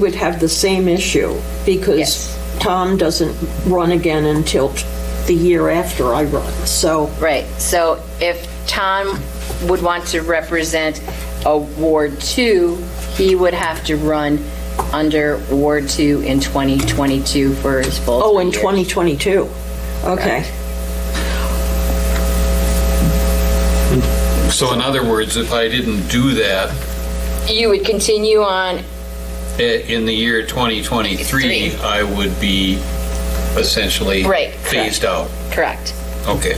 would have the same issue because Yes. Tom doesn't run again until t- the year after I run. So, Right, so if Tom would want to represent a Ward 2, he would have to run under Ward 2 in 2022 for his full oh, in three years. 2022. Okay. So in other words, if I didn't do that You would continue on, i- in the year 2023, Three. I would be essentially Right, correct. phased out. correct. Okay.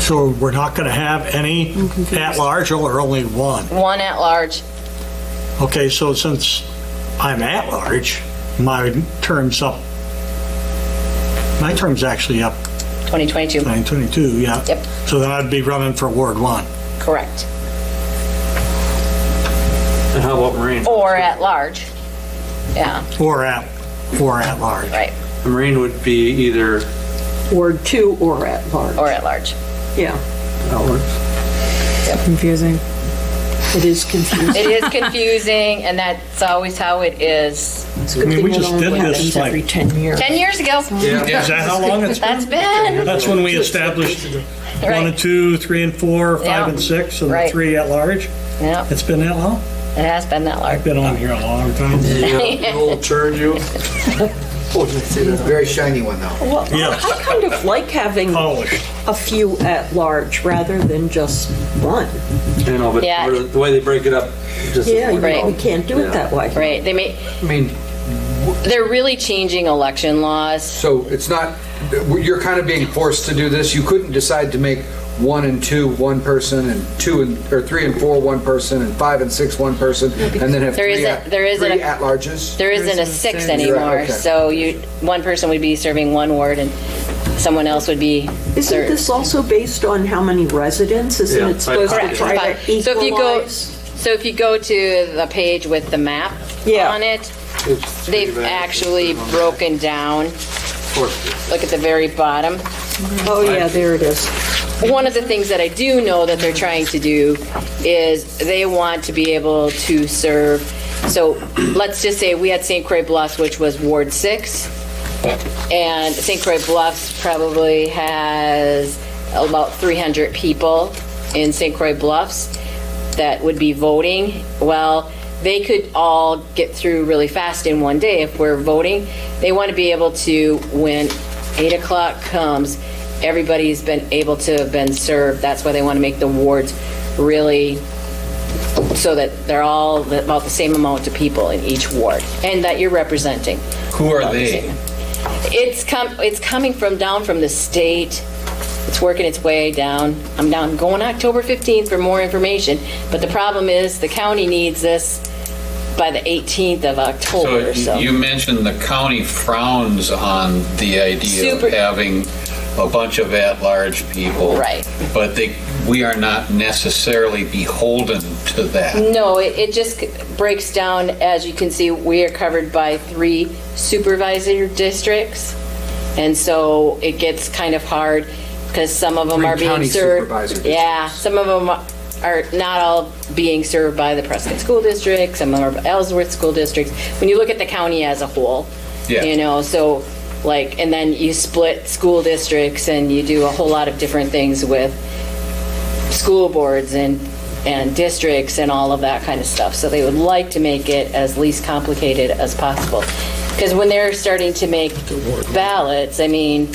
So we're not going to have any Mm-hmm. at-large or only one? One at-large, Okay, so since I'm at-large, my term's up, my term's actually up 2022, 922, yeah. Yep. So then I'd be running for Ward 1. correct. And how about Marine? Or at-large, yeah, Or at, or at large. right, Marine would be either Ward two or at large. or at-large. Yeah, outwards. Confusing. it is confusing. It is confusing, and that's always how it is. It's a good I mean, thing we it just only did this, happens like- Every 10 years. 10 years ago, Is that how long it's, that's been, that's when we established one and right, two, three and four, Yeah. five and six, and the Right. three at-large? yeah, it It's been that long? has been that large. I've been on here a long time. Yeah, old turd you. Very shiny one, though. Well, Yes. I kind of like having Polished. a few at large rather than just one. You know, but Yeah. where- the way they break it up, just. Yeah, you- Right. we can't do it that way. Right, they may, I mean, they're really changing election laws. So it's not, you're kind of being forced to do this. You couldn't decide to make one and two one person, and two and, or three and four one person, and five and six one person, and then have There three isn't- at, there isn't three a- at-larges? There isn't a six You're anymore, right, okay. so you, one person would be serving one ward and someone else would be Isn't served. this also based on how many residents? Isn't Yeah, it supposed to Correct. try to So if you go, equalize? so if you go to the page with the map Yeah. on it, it's three they've back, actually it's broken down, four. look at the very bottom. Oh, yeah, there it is. One of the things that I do know that they're trying to do is they want to be able to serve, so let's just say we had St. Croix Bluffs, which was Ward 6, and St. Croix Bluffs probably has about 300 people in St. Croix Bluffs that would be voting. Well, they could all get through really fast in one day if we're voting. They want to be able to, when 8 o'clock comes, everybody's been able to have been served. That's why they want to make the wards really, so that they're all about the same amount of people in each ward, and that you're representing. Who are they? It's com, it's coming from down from the state. It's working its way down. I'm down, going October 15th for more information, but the problem is the county needs this by the 18th of So October, you- you so. mentioned the county frowns on the idea Super- of having a bunch of at-large people. Right. But they, we are not necessarily beholden to that. No, it, it just breaks down, as you can see, we are covered by three supervisor districts. And so it gets kind of hard because some of them Three are being county served. supervisor Yeah, some of them are not all being served by the Prescott School District, some are Ellsworth School Districts. When you look at the county as a whole, Yeah. you know, so like, and then you split school districts and you do a whole lot of different things with school boards and, and districts and all of that kind of stuff. So they would like to make it as least complicated as possible. Because when they're starting to make ballots, I mean,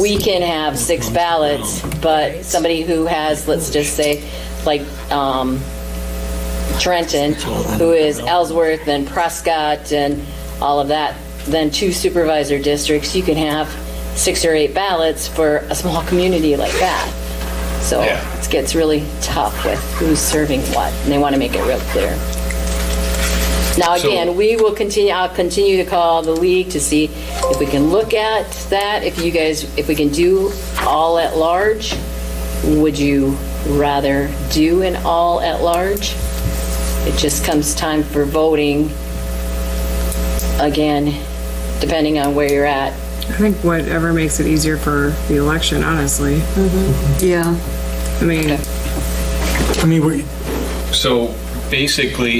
we can have six ballots, but somebody who has, let's just say, like um, Trenton, who is Ellsworth and Prescott and all of that, then two supervisor districts, you can have six or eight ballots for a small community like that. So Yeah. it gets really tough with who's serving what, and they want to make it real clear. Now, So- again, we will continue, I'll continue to call the league to see if we can look at that, if you guys, if we can do all at large. Would you rather do an all at large? It just comes time for voting, again, depending on where you're at. I think whatever makes it easier for the election, honestly. Yeah. I mean, I mean, we, So basically